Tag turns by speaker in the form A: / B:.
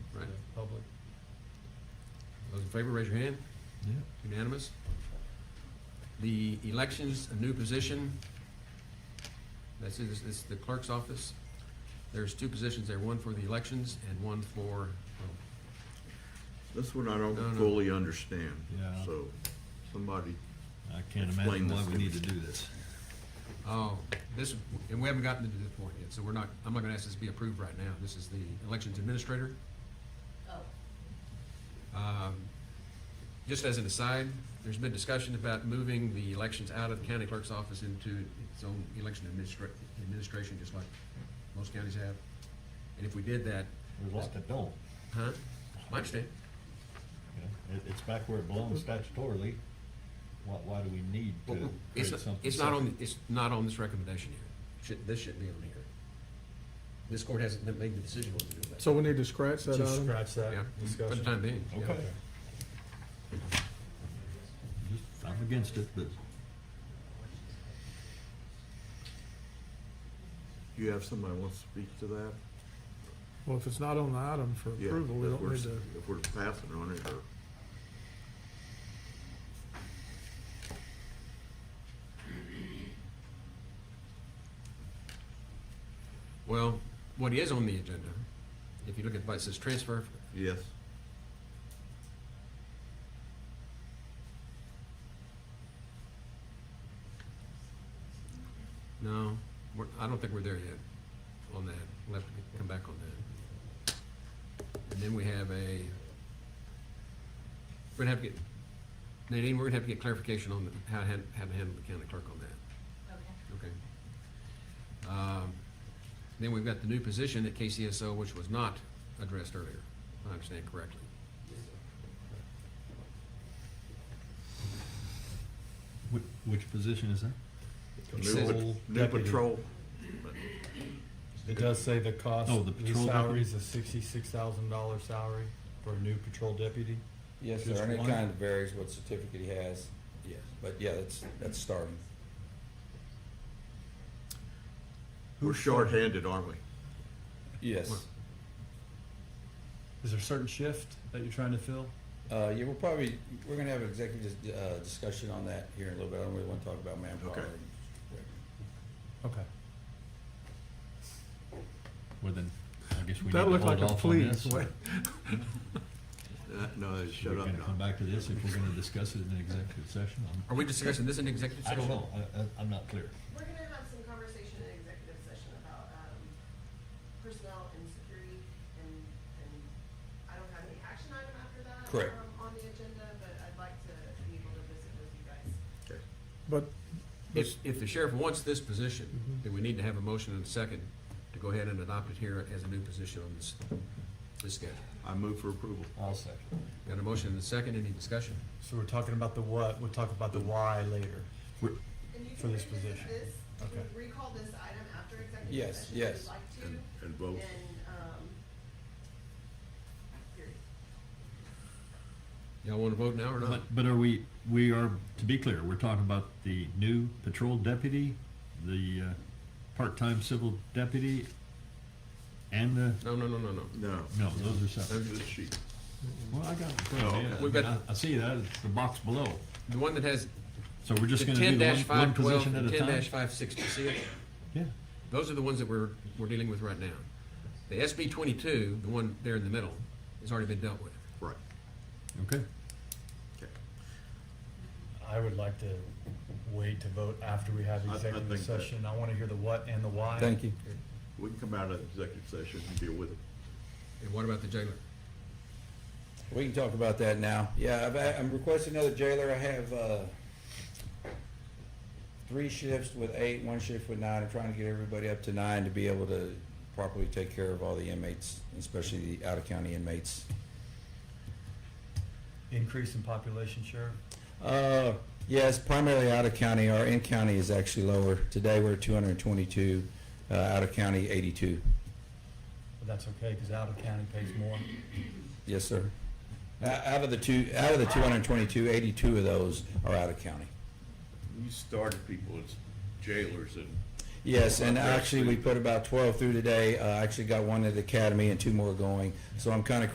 A: favor, raise your hand.
B: Yeah.
A: Unanimous. The elections, a new position. That's, this is the clerk's office. There's two positions there, one for the elections and one for, oh,
C: This one I
A: No,
C: don't
A: no.
C: fully understand,
B: Yeah.
C: so somebody,
B: I can't
C: Explain
B: imagine why
C: this
B: we
C: to
B: need
C: me.
B: to do this.
A: oh, this, and we haven't gotten to this point yet, so we're not, I'm not gonna ask this to be approved right now. This is the elections administrator.
D: Oh,
A: Um, Just as an aside, there's been discussion about moving the elections out of the county clerk's office into its own election administra- administration, just like most counties have. And if we did that,
B: There's a lot that don't.
A: huh? I understand.
B: you know. It, it's back where it belongs statutorily. Why, why do we need
A: But
B: to create
A: It's, not-
B: something?
A: it's not on,
B: separate?
A: it's not on this recommendation here. Should, this shouldn't be on here. This court hasn't made the decision what to do with that.
E: So we need to scratch that
F: Just
E: item?
F: scratch that
A: Yeah, for the
F: discussion.
A: time being. yeah.
B: Okay. Just, I'm against it, but
C: do you have somebody who wants to speak to that?
E: Well, if it's not on the item for
C: Yeah,
E: approval, we
C: if
E: don't
C: we're-
E: need to,
C: If we're passing on it, or,
A: Well, what is on the agenda, if you look at, it it says transfer
C: yes,
A: No, we're, I don't think we're there yet on that. We'll have to come back on that. And then we have a, we're gonna have to get, Nadine, we're gonna have to get clarification on the- how, to han- how to handle the county clerk on that,
D: okay.
A: okay? Um, Then we've got the new position at KCSO, which was not addressed earlier, if I understand correctly.
B: which, which position is that?
C: new,
A: says-
C: pat- new
F: Deputy.
C: patrol,
F: It does say the cost,
B: Oh, the
F: the
B: patrol
F: salary
B: deputy?
F: is a sixty-six thousand dollar salary for a new patrol deputy.
G: Yes,
F: Just
G: sir, and it
F: one?
G: kind of varies what certificate he has, yes, but yeah, that's, that's starting.
C: we're shorthanded, aren't we?
G: Yes,
F: Is there a certain shift that you're trying to fill?
G: uh, yeah, we'll probably, we're gonna have an executive, uh, discussion on that here in a little bit, I don't really wanna talk about manpower.
C: Okay.
F: Okay.
B: Well, then, I guess we need to
E: that
B: hold
E: looked
B: off on
E: like a
B: this.
E: please.
B: We're
C: Uh, No, shut up
B: gonna come
C: now.
B: back to this if we're gonna discuss it in an executive session. I'm-
A: Are we discussing this in executive
B: I
A: session?
B: don't know, I, I, I'm not clear.
H: We're gonna have some conversation in executive session about, um, personnel and security and, and I don't have any action item after that.
G: Correct.
H: um, On the agenda, but I'd like to be able to visit with you guys.
E: but
A: If, if the sheriff wants this position,
B: Mm-hmm.
A: then we need to have a motion and a second to go ahead and adopt it here as a new position on this, this schedule.
C: I move for approval.
F: I'll second.
A: Got a motion and a second, any discussion?
F: So we're talking about the what, we'll talk about the why later.
H: And you
F: For
H: can
F: this
H: revisit
F: position.
H: this, you can
F: Okay.
H: recall this item after executive
G: Yes,
H: session if
G: yes.
H: you'd like to.
C: And, and vote,
H: And, um, period.
A: Y'all wanna vote now or not?
B: But, but are we, we are, to be clear, we're talking about the new patrol deputy, the, uh, part-time civil deputy, and the,
A: No, no, no, no, no.
C: no.
B: no, those are separate.
C: That's the sheet.
B: Well, I got it in front of
C: Oh,
B: me.
C: okay.
A: We've got-
B: I- I see that, it's the box below.
A: The one that has
B: So we're just
A: the
B: gonna do
A: ten
B: the
A: dash
B: one, one
A: five twelve
B: position at
A: and
B: a
A: ten
B: time?
A: dash five sixty, see it?
B: Yeah,
A: Those are the ones that we're, we're dealing with right now. The SB twenty-two, the one there in the middle, has already been dealt with.
C: Right,
B: okay.
C: okay.
F: I would like to wait to vote after we have
C: I- I
F: executive
C: think that-
F: session. I wanna hear the what and the why.
G: Thank you.
C: We can come out of executive session and deal with it.
A: And what about the jailer?
G: We can talk about that now. Yeah, I've, I'm requesting another jailer. I have, uh, three shifts with eight, one shift with nine. I'm trying to get everybody up to nine to be able to properly take care of all the inmates, especially the out-of-county inmates.
F: Increase in population, Sheriff?
G: Uh, yes, primarily out of county. Our in county is actually lower. Today we're at 222, uh, out of county 82.
F: But that's okay, cause out of county pays more.
G: Yes, sir. O- Out of the two, out of the 222, 82 of those are out of county.
C: You started people as jailers and
G: Yes, and actually we put about 12 through today. Uh, I actually got one at the academy and two more going. So I'm kind of